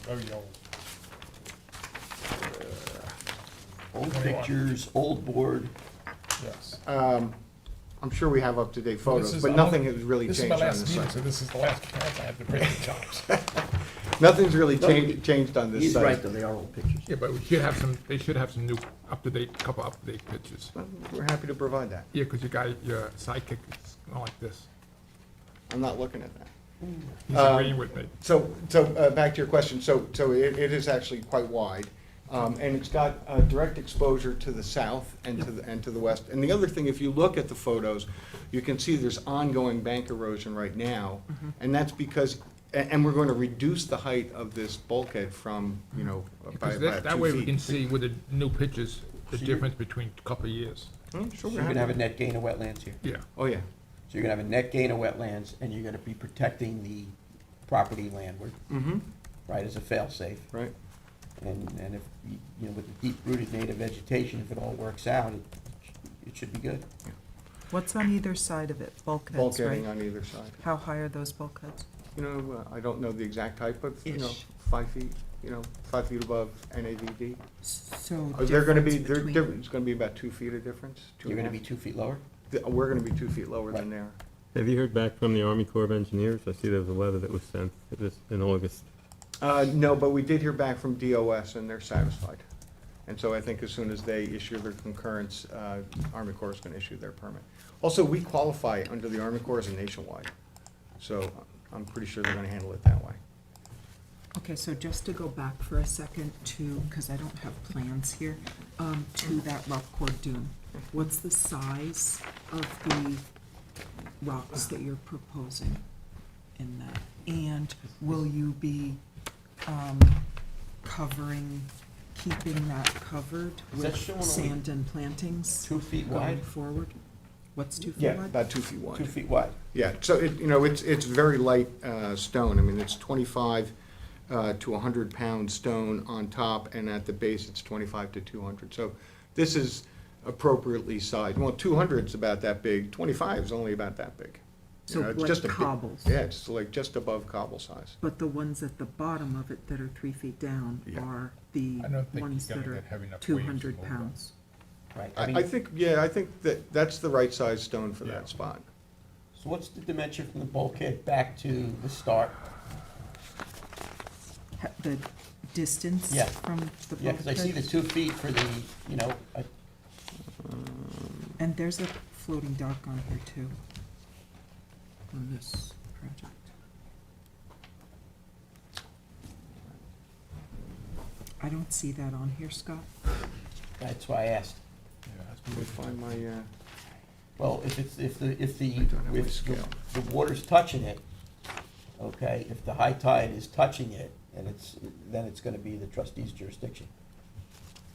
very old. Old Very old. pictures, old board. Yes. Um, I'm sure we have up-to-date Uh, This photos, is but all- nothing has really this is changed my on last this meeting, So site. this is the last chance I have to bring the jobs. Nothing's really No, cha- changed on this He's right, site. though, they are old pictures. Yeah, but we should have some, they should have some new, up-to-date, couple up-to-date pictures. We're happy to provide that. Yeah, because you got your sidekick is not like this. I'm not looking at that. He's Um, agreeing with me. So, so, uh, back to your question, so, so it, it is actually quite wide, um, and it's got, uh, direct exposure to the south and to the, and to the west. And the other thing, if you look at the photos, you can see there's ongoing bank erosion right now, Mm-hmm. and that's because, a- and we're gonna reduce the height of this bulkhead from, you know, by Because about that, that way two we can feet. see with the new pictures, the So you're- difference between a couple of years. Hmm, Sure, So we're you're gonna have a happy. net gain of wetlands here. Yeah, Oh, yeah, So you're gonna have a net gain of wetlands, and you're gonna be protecting the property landward, mm-hmm, right, as a fail-safe. right, And, and if, you you know, with the deep-rooted native vegetation, if it all works out, it, it should be good. What's on either side of it? Bulkheads, bulkheading right? on either side. How high are those bulkheads? You know, uh, I don't know the exact height, but, you know, Ish. five feet, you know, five feet above NAVD. So Are there Oh, Uh, gonna be, there, there- it's gonna be about two feet of difference? two You're and a gonna be half? two feet lower? Th- We're gonna be two feet lower than Right. there. Have you heard back from the Army Corps of Engineers? I see there was a letter that was sent this, in August. Uh, no, but we did hear back from DOS and they're satisfied. And so I think as soon as they issue their concurrence, uh, Army Corps is gonna issue their permit. Also, we qualify under the Army Corps as a nationwide, so I'm pretty sure they're gonna handle it that way. Okay, so just to go back for a second to, because I don't have plans here, um, to that rock core dune. What's the size of the rocks that you're proposing in that? And will you be, um, covering, keeping that covered Is that with showing only sand and plantings Two feet going wide? forward? What's two feet Yeah, wide? about two feet wide. Two feet wide. Yeah, so it, you know, it's, it's very light uh, stone. I mean, it's 25 uh, to 100-pound stone on top, and at the base, it's 25 to 200. So this is appropriately sized. Well, 200's about that big, 25 is only about that big. You So know, it's like just a bit- cobbles. Yeah, it's like just above cobble size. But the ones at the bottom of it that are three feet down Yeah. are the I don't think you're ones that gonna are get heavy enough waves to two hundred move pounds. Right, I I I mean, think, yeah, I think that, that's the right size stone for Yeah. that spot. so what's the dimension from the bulkhead back to the start? Ha- The distance Yeah. from the Yeah, because I see the bulkhead. two feet for the, you know, I- Um, And there's a floating dock on here too. On this project. I don't see that on here, Scott. that's why I asked. Let me find my, uh, Well, if it's, if the, if the, I don't have my if the- scale. the water's touching it, okay, if the high tide is touching it, and it's, then it's gonna be the trustee's jurisdiction.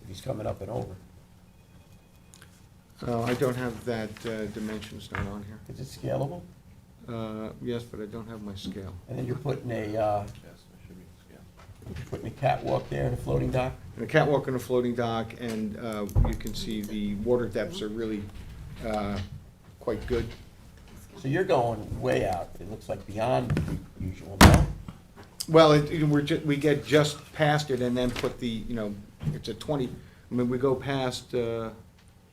If he's coming up and over, oh, I don't have that uh, dimension stone on here. is it scalable? Uh, Yes, but I don't have my scale. And then you're putting a, uh, you're putting a catwalk there and a floating dock? and a catwalk and a floating dock, and uh, you can see the water depths are really uh, quite good. So you're going way out, it looks like beyond the usual, no? Well, it- it- we're, ju- we get just past it and then put the, you know, it's a 20, I mean, we go past, uh,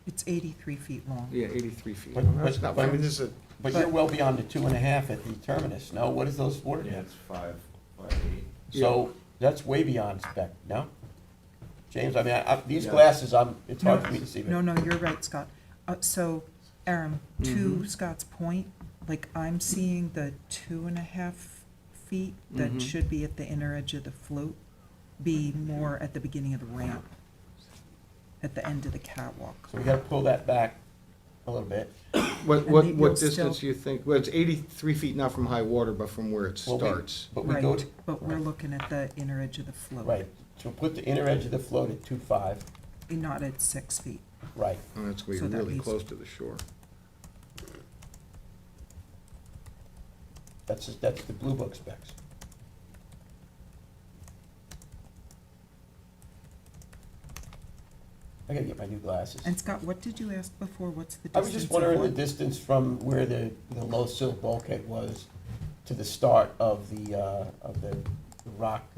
It's eighty-three feet long. yeah, 83 feet. But- That's but- not- I mean, this is a, But you're well beyond the two and a half at the terminus, no? What is those water Yeah, depths? it's five by eight. So that's way beyond spec, no? James, I mean, I, I, these Yeah. glasses, I'm, it's No, hard for me to see. but- No, no, you're right, Scott. Uh, so, Aaron, to Scott's point, like, I'm seeing the two and a half feet that Mhm. should be at the inner edge of the float be more at the beginning of the ramp, at the end of the catwalk. So we gotta pull that back a little bit. what, And what, maybe what it'll distance still- do you think, well, it's 83 feet, not from high water, but from where it Well, we- starts. But we go, Right, But we're looking at the inner edge of the float. right, so put the inner edge of the float at two five, and Not at six feet. right, And it's going to So be that really leaves- close to the shore. that's, that's the blue book specs. I gotta get my new glasses. And Scott, what did you ask before? What's the I distance? was just of wondering the one? distance from where the, the low sill bulkhead was to the start of the, uh, of the rock